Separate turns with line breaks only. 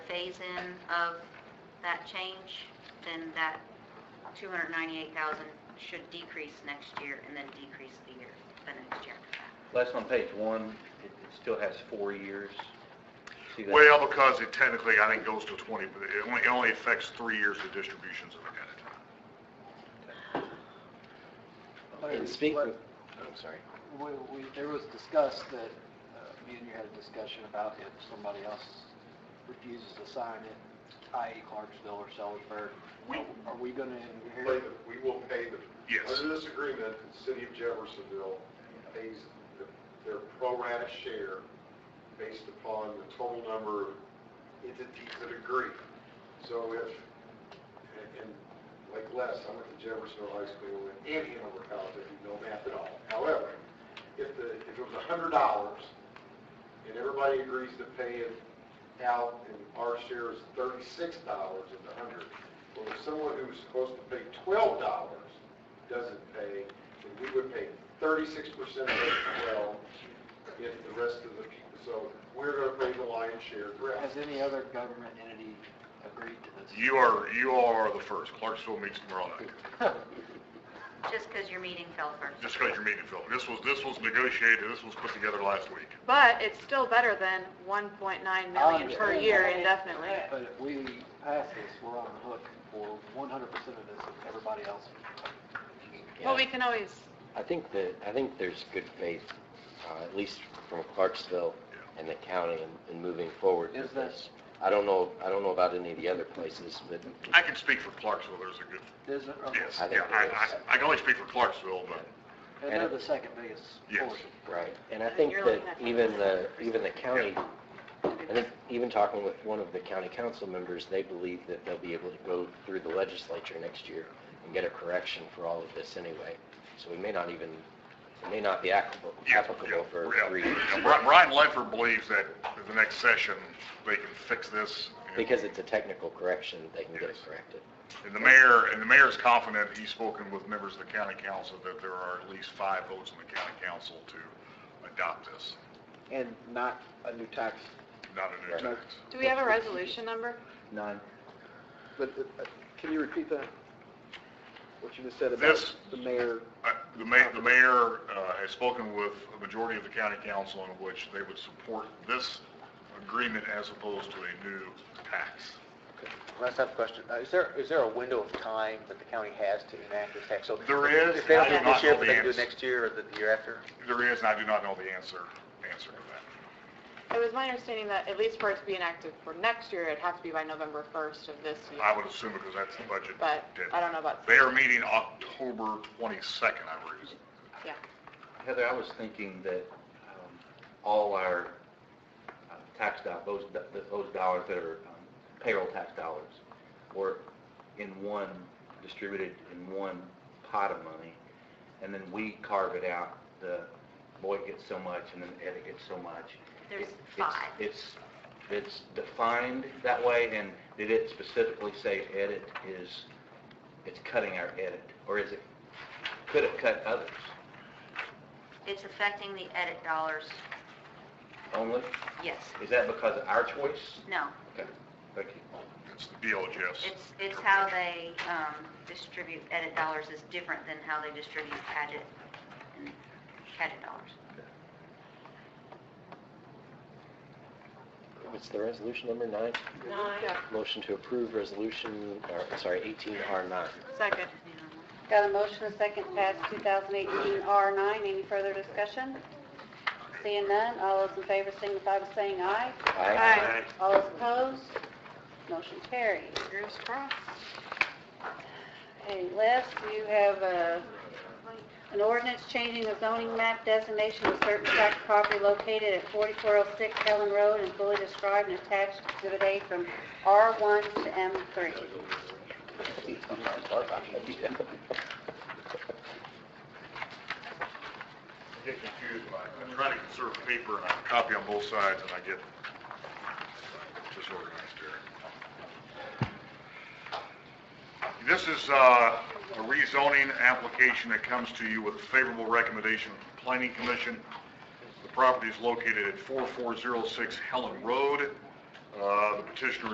phase-in of that change, then that 298,000 should decrease next year and then decrease the year, the next year after that.
Last on page one, it it still has four years. See that?
Well, because it technically, I think, goes to 20, but it only, it only affects three years of distributions of it at a time.
Hey,
And speak,
what-
with- I'm sorry.
We, we, there was discussed that, uh, me and you had a discussion about if somebody else refuses to sign it, i.e. Clarksville or Sellersburg,
We-
are we gonna
Pay
inherit?
the- We will pay the.
Yes.
Under this agreement, the city of Jeffersonville pays the- their pro rata share based upon the total number of entities that agree. So if, and- and like Les, I went to Jeffersonville High School and Hanover College, I did no math at all. However, if the, if it was a hundred dollars and everybody agrees to pay it out and our share is thirty-six dollars of the hundred, well, if someone who's supposed to pay twelve dollars doesn't pay, then we would pay thirty-six percent of that twelve if the rest of the people, so we're gonna pay the lion's share of the
Has
rest.
any other government entity agreed to this?
You are, you all are the first. Clarksville meets tomorrow night.
Just because your meeting fell first.
Just because you're meeting, Phil. This was, this was negotiated, this was put together last week.
But it's still better than 1.9 million per
understand
year
that.
indefinitely.
But if we pass this, we're on the hook for one hundred percent of this, if everybody else.
Well,
Yeah.
we can always,
I think that, I think there's good faith, uh, at least from Clarksville and the county in- in moving forward
Is
with
that-
this. I don't know, I don't know about any of the other places, but
I can speak for Clarksville, there's a good,
There's, a-
yes,
I think
yeah, I,
there
I,
is.
I can only speak for Clarksville, but
and they're the second biggest
Yes.
portion.
Right, and I
And
think
you're
that
looking at
even the,
27%.
even the county, I think even talking with one of the county council members, they believe that they'll be able to go through the legislature next year and get a correction for all of this anyway. So we may not even, it may not be applicable
yeah, yeah.
applicable for
yeah.
three years.
Yeah, Bri- Brian Ledford believes that at the next session, they can fix this. and-
Because it's a technical correction, they can get it
Yes.
corrected.
And the mayor, and the mayor's confident, he's spoken with members of the county council, that there are at least five votes in the county council to adopt this,
And not a new tax,
not a new
Right.
tax.
do we have a resolution number?
None.
but uh, can you repeat that? What you just said
about This-
the mayor?
Uh, The mayor, the mayor uh, has spoken with a majority of the county council in which they would support this agreement as opposed to a new tax.
Last have a question. Uh, Is there, is there a window of time that the county has to enact this tax? So
There is,
If they don't do
I
it
do not
this year,
know
but
the
they can do it
answer.
next year or the year after?
There is, and I do not know the answer, answer to that.
It was my understanding that at least for it to be enacted for next year, it'd have to be by November 1st of this
I
year.
would assume because that's the budget.
But I
deadline.
don't know about,
They are meeting October 22nd, I believe.
yeah.
Heather, I was thinking that um, all our uh, tax dollars, those, do- those dollars that are um, payroll tax dollars, were in one, distributed in one pot of money, and then we carve it out, the Boyd gets so much, and then Eddie gets so much.
There's
It- it's-
five.
It's, it's defined that way, and did it specifically say edit is, it's cutting our edit, or is it, could it cut others
It's affecting the edit dollars,
only?
yes,
Is that because of our choice?
no.
Okay, thank you.
It's the DLGF's.
It's, it's how they um, distribute edit dollars is different than how they distribute edit, edit dollars.
What's the resolution number nine?
Yeah.
Motion to approve resolution, or, sorry, 18R9.
Second.
Got a motion, a second, pass 2018 R9. Any further discussion? Seeing none, all those in favor signify by saying aye.
Aye.
All those opposed, motion carries.
Fingers crossed.
Okay, Les, you have a, an ordinance changing the zoning map designation of certain tract of property located at 4406 Helen Road and fully described and attached to Exhibit A from R1 to M3.
I get confused when I- I try to conserve paper and I copy on both sides and I get disorganized here. This is uh, a rezoning application that comes to you with a favorable recommendation from the Planning Commission. The property is located at 4406 Helen Road. Uh, The petitioner